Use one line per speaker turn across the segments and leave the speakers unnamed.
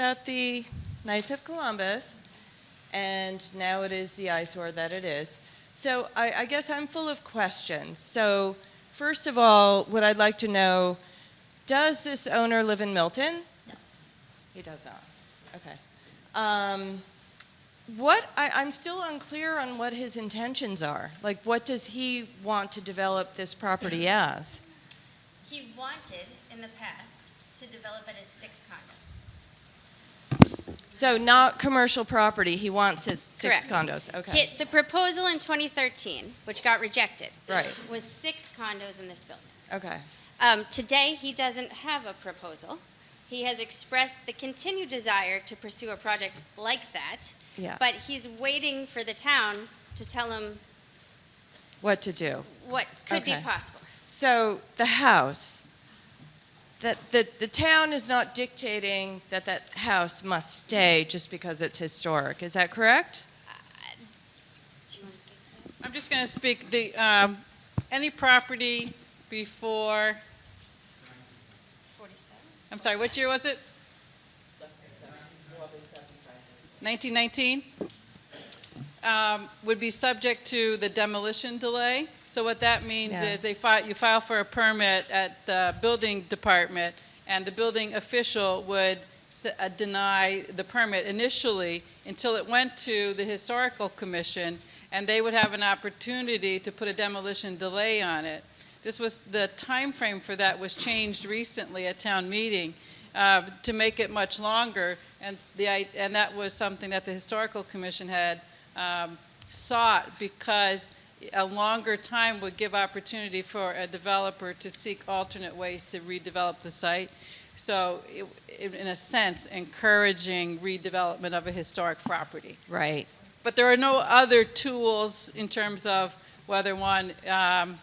about the Knights of Columbus, and now it is the eyesore that it is. So I, I guess I'm full of questions. So first of all, what I'd like to know, does this owner live in Milton?
No.
He does not. Okay. Um, what I, I'm still unclear on what his intentions are. Like, what does he want to develop this property as?
He wanted, in the past, to develop it as six condos.
So not commercial property. He wants his six
Correct.
condos. Okay.
Hit the proposal in 2013, which got rejected.
Right.
Was six condos in this building.
Okay.
Um, today, he doesn't have a proposal. He has expressed the continued desire to pursue a project like that,
Yeah.
but he's waiting for the town to tell him
what to do.
what could be
Okay.
possible.
So the house, that the, the town is not dictating that that house must stay just because it's historic. Is that correct?
Do you want to speak to that?
I'm just going to speak, the, um, any property before,
47?
I'm sorry, what year was it? 1919? Um, Would be subject to the demolition delay. So what that means
Yeah.
is they file, you file for a permit at the building department, and the building official would s- uh, deny the permit initially until it went to the historical commission, and they would have an opportunity to put a demolition delay on it. This was, the time frame for that was changed recently at town meeting uh, to make it much longer, and the, i- and that was something that the Historical Commission had um, sought because a longer time would give opportunity for a developer to seek alternate ways to redevelop the site. So it- it- in a sense, encouraging redevelopment of a historic property.
Right.
But there are no other tools in terms of whether one, um,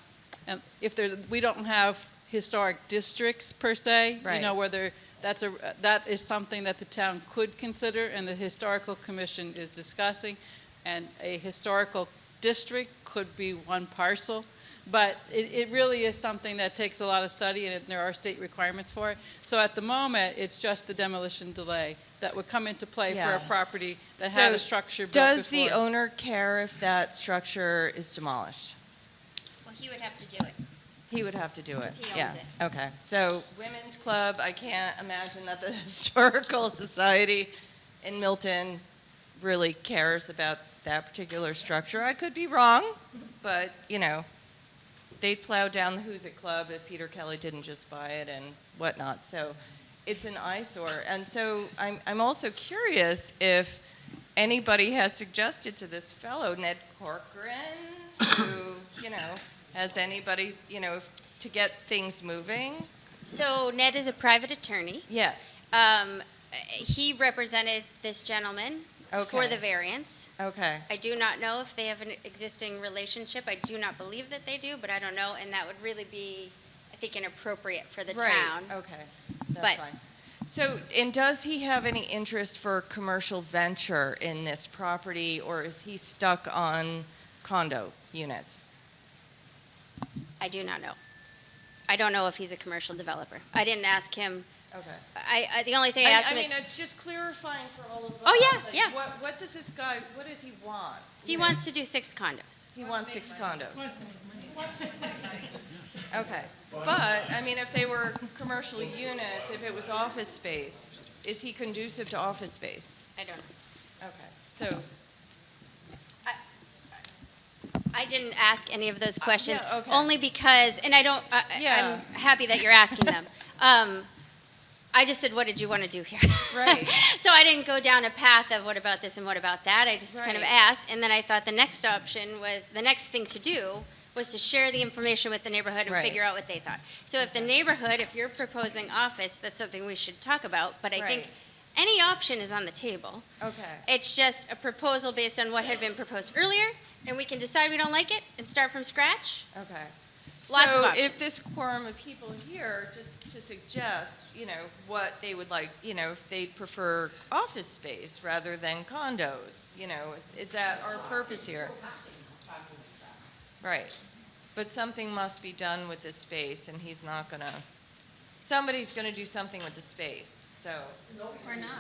and if there, we don't have historic districts per se. You know,
Right.
whether that's a, that is something that the town could consider and the historical commission is discussing. And a historical district could be one parcel. But it, it really is something that takes a lot of study and there are state requirements for it. So at the moment, it's just the demolition delay that would come into play for
Yeah.
a property that had a
So
structure built
Does the
before.
owner care if that structure is demolished?
Well, he would have to do it.
He would have to do it.
Because he owns
yeah. Okay. So women's club. I can't imagine that the historical society in Milton really cares about that particular structure. I could be wrong, but you know, they'd plow down the Who's It Club if Peter Kelly didn't just buy it and whatnot. So it's an eyesore. And so I'm, I'm also curious if anybody has suggested to this fellow, Ned Corcoran, who, you know, has anybody, you know, if- to get things moving?
So Ned is a private attorney.
Yes.
Um, he represented this gentleman for
Okay.
the variance.
Okay.
I do not know if they have an existing relationship. I do not believe that they do, but I don't know, and that would really be, I think, inappropriate for the
right.
town.
Okay. That's
But-
fine. So, and does he have any interest for commercial venture in this property, or is he stuck on condo units?
I do not know. I don't know if he's a commercial developer. I didn't ask him.
Okay.
I, I the only thing I
I,
asked
I
him is
mean, it's just clarifying for all of us.
Oh, yeah,
like,
yeah.
What, what does this guy, what does he want?
he
You know,
wants to do six condos.
He wants six condos. Okay, but, I mean, if they were commercial units, if it was office space, is he conducive to office space?
I don't know.
Okay, so,
I didn't ask any of those questions,
Uh, okay.
only because, and I don't, I- I-
Yeah.
I'm happy that you're asking them. Um, I just said, what did you want to do here?
Right.
So I didn't go down a path of what about this and what about that, I just kind of
Right.
asked, and then I thought the next option was, the next thing to do was to share the information with the neighborhood and
Right.
figure out what they thought. So if the neighborhood, if you're proposing office, that's something we should talk about, but I think
Right.
any option is on the table.
okay,
It's just a proposal based on what had been proposed earlier, and we can decide we don't like it and start from scratch.
okay.
Lots of
So
options.
if this quorum of people here, just to suggest, you know, what they would like, you know, if they'd prefer office space rather than condos, you know, is that our purpose here? Right. But something must be done with this space, and he's not gonna, somebody's gonna do something with the space, so.
Or not.